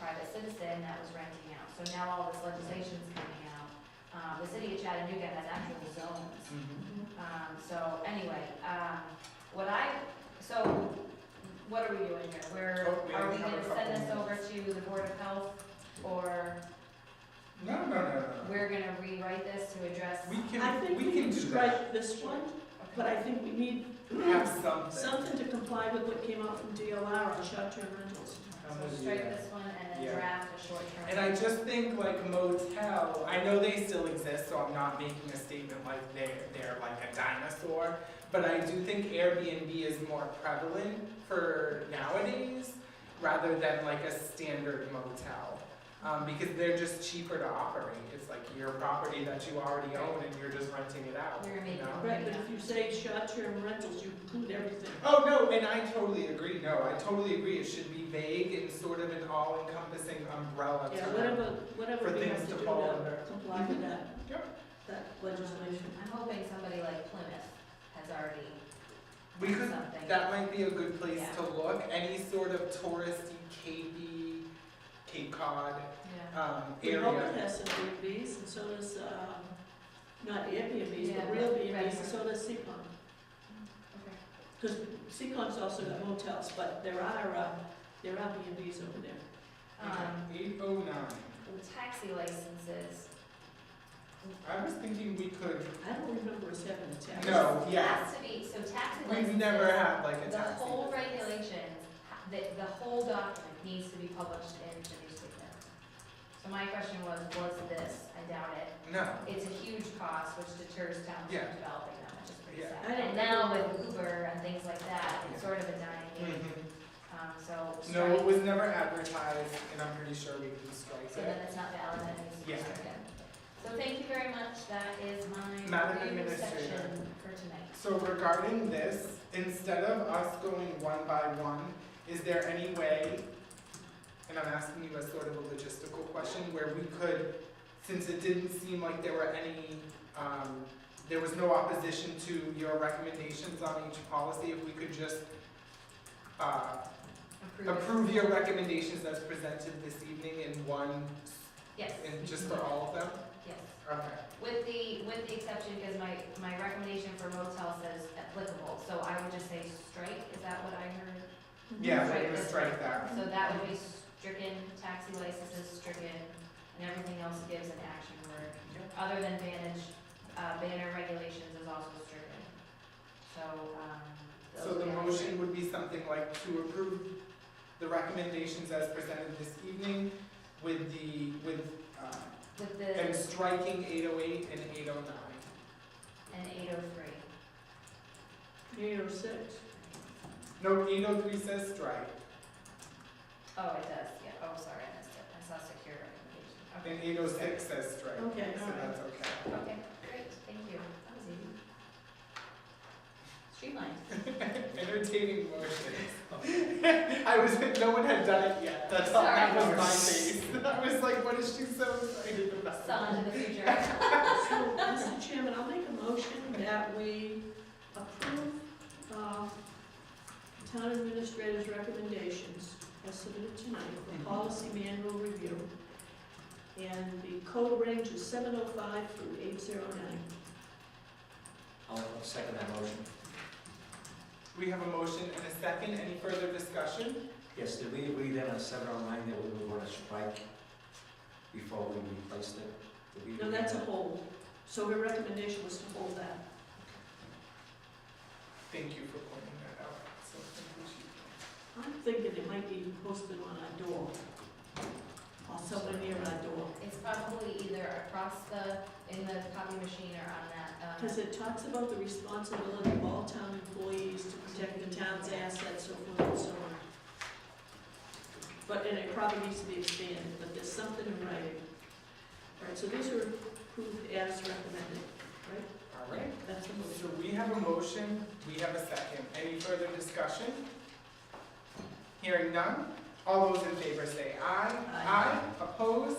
private citizen that was renting out. So now all this legislation's coming out. Uh, the city of Chattanooga has actual zones. Mm-hmm. Um, so anyway, um, what I, so what are we doing here? We're, Oh, we are we have a gonna send couple this over to the Board of Health? Or No, no, no, no, no. we're gonna rewrite this to address? Uh-huh. I We can, think we we can can do that. strike this one, but Okay. I think we need Have something. something to comply with what came out from DLR on short-term rentals. I'm So with you. strike this one and Yeah. then draft a short-term. And I just think like motel, I know they still exist, so I'm not making a statement like they're, they're like a dinosaur. But I do think Airbnb is more prevalent for nowadays rather than like a standard motel. Um, because they're just cheaper to operate. It's like your property that you already own and you're just renting it out, You're gonna you make it know? Right, but if you say short-term rentals, you include everything. Oh, no, and I totally agree. No, I totally agree. It should be vague and sort of an all-encompassing umbrella Yeah, term. whatever, For whatever we things have to to do fall to under. comply with that, Yep. that legislation. I'm hoping somebody like Plymouth has already We could, something. that might be a good place Yeah. to look, any sort of touristy Capey, Cape Cod, Yeah. um, oh Remote area. has some Airbnbs, and so does, um, not Airbnbs, Yeah, but real right. Airbnbs, and so does Seacon. Okay. Because Seacon's also got motels, but there are, uh, there are B&Bs over there. Um, Eight oh nine, with taxi licenses. I was thinking we could, I don't remember us having a tax. no, yeah, Has to be, so taxi licenses. we've never had like a The taxi. whole regulations, ha- the, the whole document needs to be published in the newspaper. So my question was, was this, I doubt it, No, it's a huge cost which deters towns Yeah. from developing them, which is pretty Yeah. sad. I don't And now with Uber and things like that, it's Yeah. sort of a dying game, Mhm. um, so no, it strike, was never advertised, and I'm pretty sure we can so strike then it. it's not valid, and it's Yeah. stricken. So thank you very much, that is my Madam review Administrator. section for tonight. So regarding this, instead of us going one by one, is there any way, and I'm asking you a sort of a logistical question, where we could, since it didn't seem like there were any, um, there was no opposition to your recommendations on each policy, if we could just, uh, Approve it. approve your recommendations as presented this evening in one, Yes, in just for all of them? yes. Okay. With the, with the exception, because my, my recommendation for motel says applicable, so I would just say strike, is that what I heard? Mm-hmm. Yeah, Right, we're gonna that's strike that. So that would be stricken, taxi licenses stricken, and everything else gives an action word. Other than vantage, uh, banner regulations is also stricken. So, um. So those the would be- motion would be something like to approve the recommendations as presented this evening with the, with, uh, With and the, striking eight oh eight and eight oh nine. and eight oh three. Eight oh six. No, eight oh three says strike, Oh, it does, yeah, oh, sorry, I missed it, I saw secure recommendation, okay. and eight oh six says strike, so Okay, all right. that's okay. Okay, great, thank you. That was easy. Streamlined. Entertaining motions. I was, no one had done it yet, that's all, that Sorry. was my face. I was like, what is she so excited about? Son of the future. So, Mr. Chairman, I'll make a motion that we approve, uh, town administrator's recommendations as submitted tonight Mm-hmm. for policy manual review. And the code range is seven oh five through eight zero nine. I'll second that motion. We have a motion and a second, any further discussion? Yes, did we agree then on seven oh nine that we would want to strike before we replaced it? Did we- No, that's a hold. So her recommendation was to hold that. Thank you for pointing that out, so thank I'm thinking it might be posted on our door, or somewhere near our door, It's probably either across the, in the copy machine or on that, um, because it talks about the responsibility of all town employees to protect the town's assets, so forth and so on. But, and it probably needs to be expanded, but there's something in writing. All right, so these are approved as recommended, right? you. All right, That's the so motion. we have a motion, we have a second. Any further discussion? Hearing none, all those in favor say aye. Aye. opposed,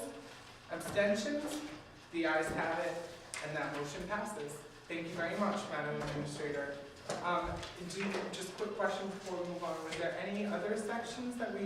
abstentions? The ayes have it, and that motion passes. Thank you very much, Madam Administrator. Um, do, you- just quick question before we move on, was there any other sections that we